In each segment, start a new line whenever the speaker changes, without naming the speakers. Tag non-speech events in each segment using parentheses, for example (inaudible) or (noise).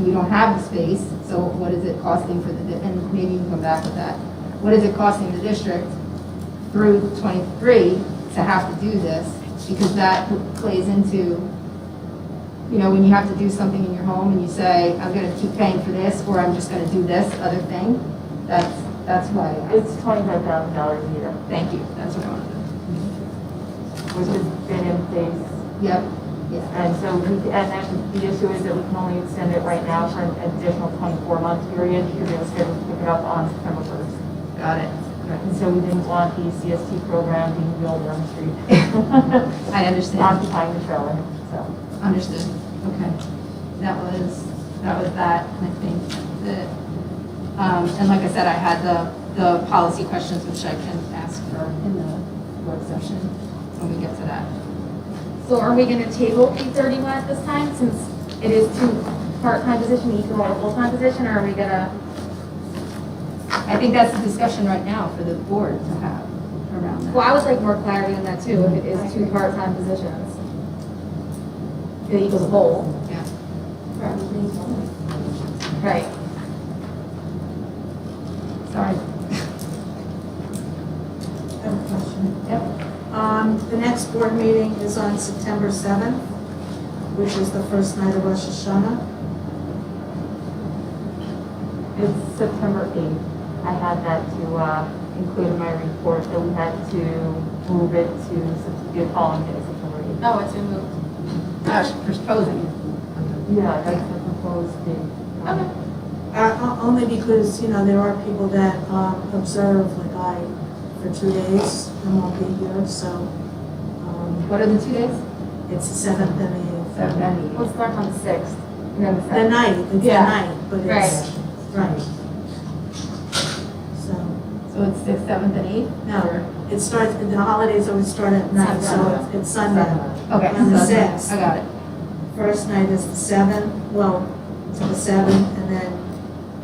we don't have the space, so what is it costing for the, di- and maybe you can come back with that. What is it costing the district through 23 to have to do this? Because that plays into, you know, when you have to do something in your home and you say, I'm gonna keep paying for this, or I'm just gonna do this other thing, that's, that's why I asked.
It's twenty-five thousand dollars a year,
Thank you, that's what I wanted.
which has been in place.
to- Yep, yeah,
And so we, and then the issue is that we can only extend it right now for an additional twenty-four month period. You're going to schedule to pick it up on September first.
got it.
And so we didn't want the CST program being built on the street, (laughs)
I understand.
occupying the trailer, so.
Understood, okay. That was, that was that, and I think that, um, and like I said, I had the, the policy questions, which I can ask for in the work session when we get to that.
So are we gonna table eight thirty-one at this time, since it is two part-time position, each one a full-time position, or are we gonna?
I think that's the discussion right now for the board to have around
Well,
that.
I would like more clarity on that too, if it is two part-time positions. It equals a whole.
Yeah.
Right.
Sorry.
I have a question.
Yep.
Um, the next board meeting is on September seventh, which is the first night of Rosh Hashanah.
It's September eighth. I had that to, uh, include in my report that we had to move it to Sept- the following day, September eighth.
Oh, it's been moved.
Gosh, proposing.
Yeah, that's the proposed date.
Okay.
Uh, o- only because, you know, there are people that, um, observe, like I, for two days, and won't be here, so, um,
What are the two days?
it's the seventh and the eighth.
Seven and
Let's start on the sixth, and then the
The
seventh.
night, it's the
Yeah.
night, but it's, right. So,
So it's sixth, seventh, and eighth?
no, it starts, the holidays always start at night, so it's- it's Sunday.
Okay.
On the
so-
sixth.
I got it.
First night is the seventh, well, to the seventh, and then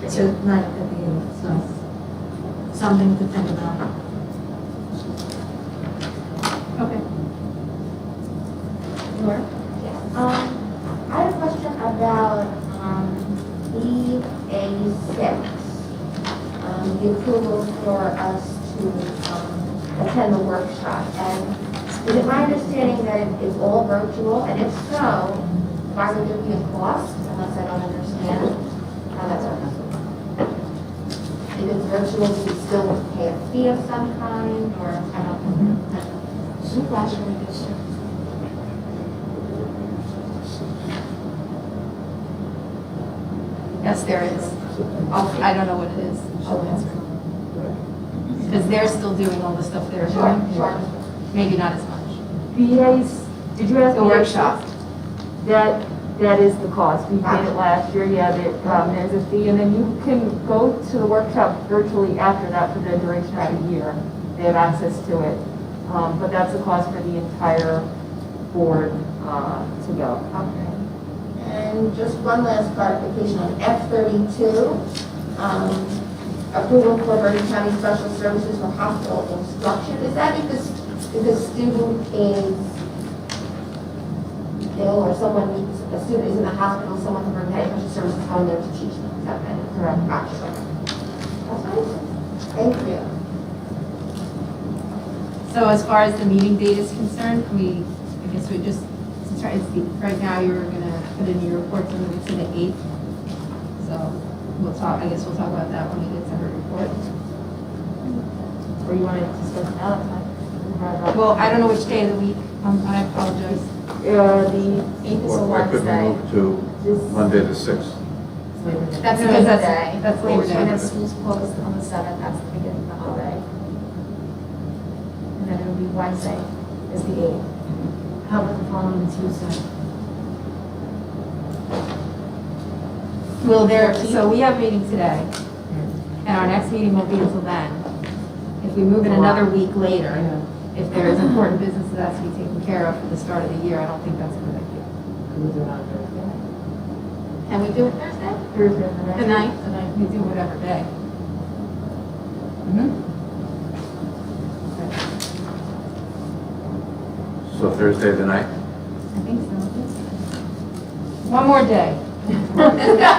to night at the eighth, so something to think about.
Okay.
Laura?
Um, I have a question about, um, E A six. Um, the approval for us to, um, attend the workshop. And is it my understanding that it's all virtual? And if so, why would there be a cost unless I don't understand how that's working? If it's virtual, do you still pay a fee of some kind or, I don't know.
Yes, there is. I'll- I don't know what it is. I'll answer. Because they're still doing all the stuff they're
Sure,
doing.
sure.
Maybe not as much.
BA's, did you ask?
The workshop.
That, that is the cost. We did it last year, yeah, there, um, there's a fee, and then you can go to the workshop virtually after that for the duration of the year. They have access to it, um, but that's the cost for the entire board, uh, to go.
Okay. And just one last clarification on F thirty-two, um, approval for Bergen County Special Services for Hospital Instruction. Is that if the, s- if the student is ill or someone needs, a student is in the hospital, someone from Bergen County Special Services is going there to teach them? Is that right?
Correct.
Gotcha. That's what it is. Thank you.
So as far as the meeting date is concerned, we, I guess we just, to try and see, right now you're gonna put in your report to move to the eighth. So we'll talk, I guess we'll talk about that when we get to her report.
Or you want to discuss it out of time?
Well, I don't know which day of the week, um, I apologize.
Uh, the eighth is a
Why could we
Wednesday.
move to
This-
Monday the 6th?
That's because
Day.
that's, that's Labor
And
Day.
then school's closed on the seventh, that's the beginning of the holiday. And then it'll be Wednesday is the eighth.
How about the following Tuesday?
Will there, so we have a meeting today, and our next meeting won't be until then. If we move it another week later, if there is important business that has to be taken care of for the start of the year, I don't think that's a good idea.
Can we do it Thursday?
Thursday, the next.
The ninth?
And I can do whatever day.
So Thursday the 9th?
I think so. One more day.